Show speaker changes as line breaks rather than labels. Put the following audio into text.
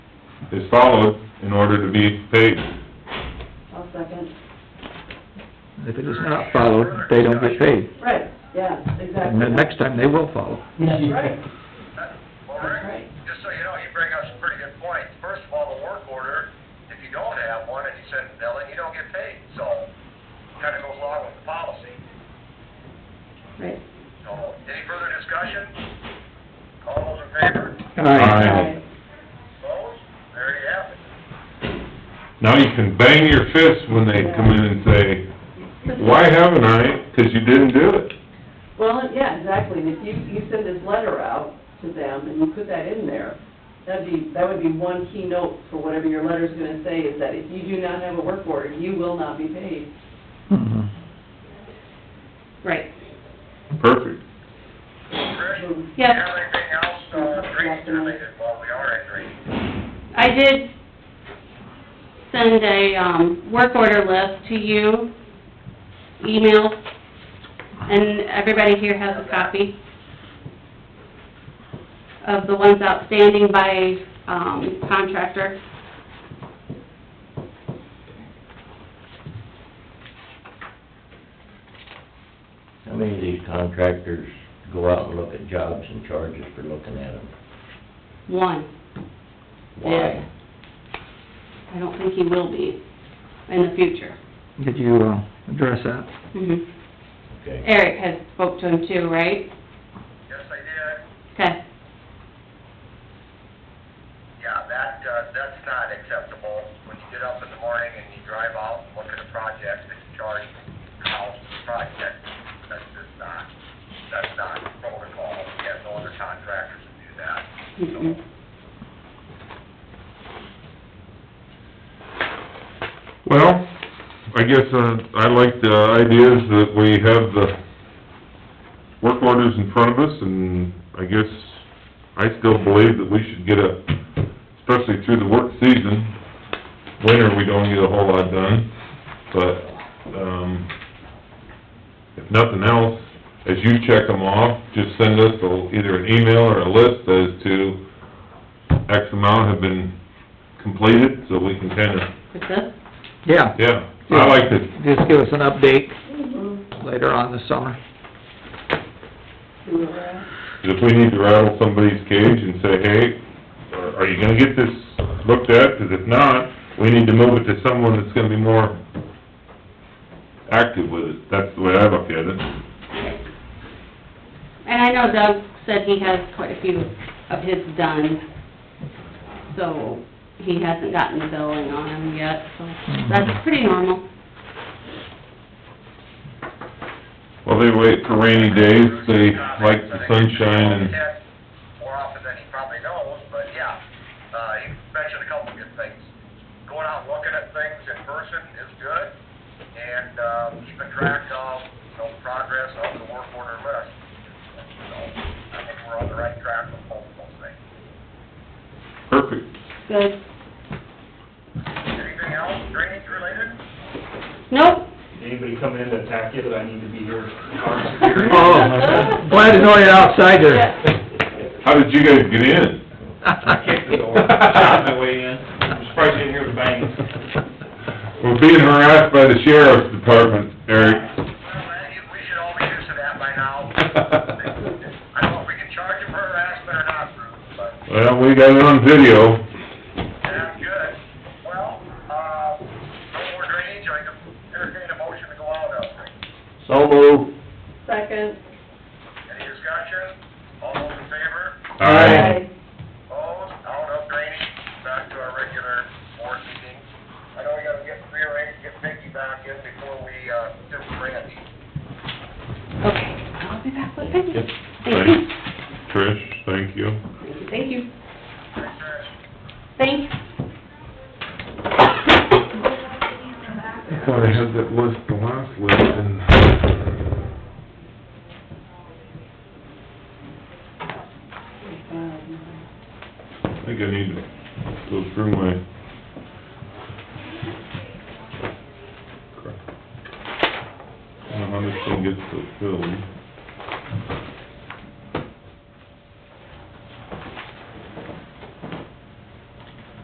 is followed in order to be paid.
I'll second.
If it is not followed, they don't get paid.
Right, yeah, exactly.
And then next time, they will follow.
That's right,
Well,
that's
Rick,
right.
just so you know, you bring up some pretty good points. First of all, the work order, if you don't have one and you send a bill in, you don't get paid, so kind of goes along with the policy.
Right.
So, any further discussion? All those in favor?
Aye.
Opposed? There you have it.
Now you can bang your fist when they come in and say, why haven't I? 'Cause you didn't do it.
Well, yeah, exactly, and if you, you send this letter out to them and you put that in there, that'd be, that would be one keynote for whatever your letter's gonna say, is that if you do not have a work order, you will not be paid.
Mhm.
Right.
Perfect.
Trish, do you
Yes.
have anything else, uh, drainage related while we are at drainage?
I did send a, um, work order list to you, email, and everybody here has a copy of the ones outstanding by, um, contractor.
How many of these contractors go out and look at jobs and charges for looking at them?
One.
Why?
I don't think he will be in the future.
Did you, uh, address that?
Mhm.
Okay.
Eric has spoke to him too, right?
Yes, I did.
Okay.
Yeah, that, uh, that's not acceptable. When you get up in the morning and you drive out and look at a project that you charge the house for the project, that's just not, that's not protocol. We have no other contractors that do that.
Mhm.
Well, I guess, uh, I like the ideas that we have the work orders in front of us, and I guess I still believe that we should get a, especially through the work season, winter, we don't get a whole lot done, but, um, if nothing else, as you check them off, just send us a- either an email or a list as to X amount have been completed, so we can kinda
With this?
Yeah.
yeah, I like to,
Just give us an update
Mhm.
later on this summer.
Do that.
if we need to rattle somebody's cage and say, hey, are- are you gonna get this looked at? 'Cause if not, we need to move it to someone that's gonna be more active with it. That's the way I look at it.
And I know Doug said he has quite a few of his done, so he hasn't gotten the billing on them yet, so that's pretty normal.
Well, they wait for rainy days, they like the sunshine and,
More often than he probably knows, but yeah, uh, you mentioned a couple of good things. Going out and looking at things in person is good, and, um, keeping track of, you know, progress of the work order list. So, I think we're on the right track with both of those things.
perfect.
Good.
Anything else drainage related?
Nope.
Anybody come in to attack you that I need to be here?
Oh, glad to know you're outside there.
How did you guys get in?
I kicked the door, shot my way in, I'm surprised you didn't hear the bang.
We're being harassed by the sheriff's department, Eric.
Well, I- we should all be used to that by now. I don't know if we can charge him for harassment or not, Bruce, but.
Well, we got it on video.
Sounds good. Well, uh, no more drainage, I can entertain a motion to go out of drainage.
So moved.
Second.
Any discussion? All those in favor?
Aye.
Opposed? Out of drainage, back to our regular board meeting. I know we gotta get rearranged, get Vicky back in before we, uh, do Randy.
Okay, I'll be back with Peggy.
Yep.
Thank you.
Trish, thank you.
Thank you, thank you.
Thanks, Trish.
Thanks.
I thought I had that list, the last list, and...
Um,
I think I need to go through my... I don't know how this thing gets fulfilled.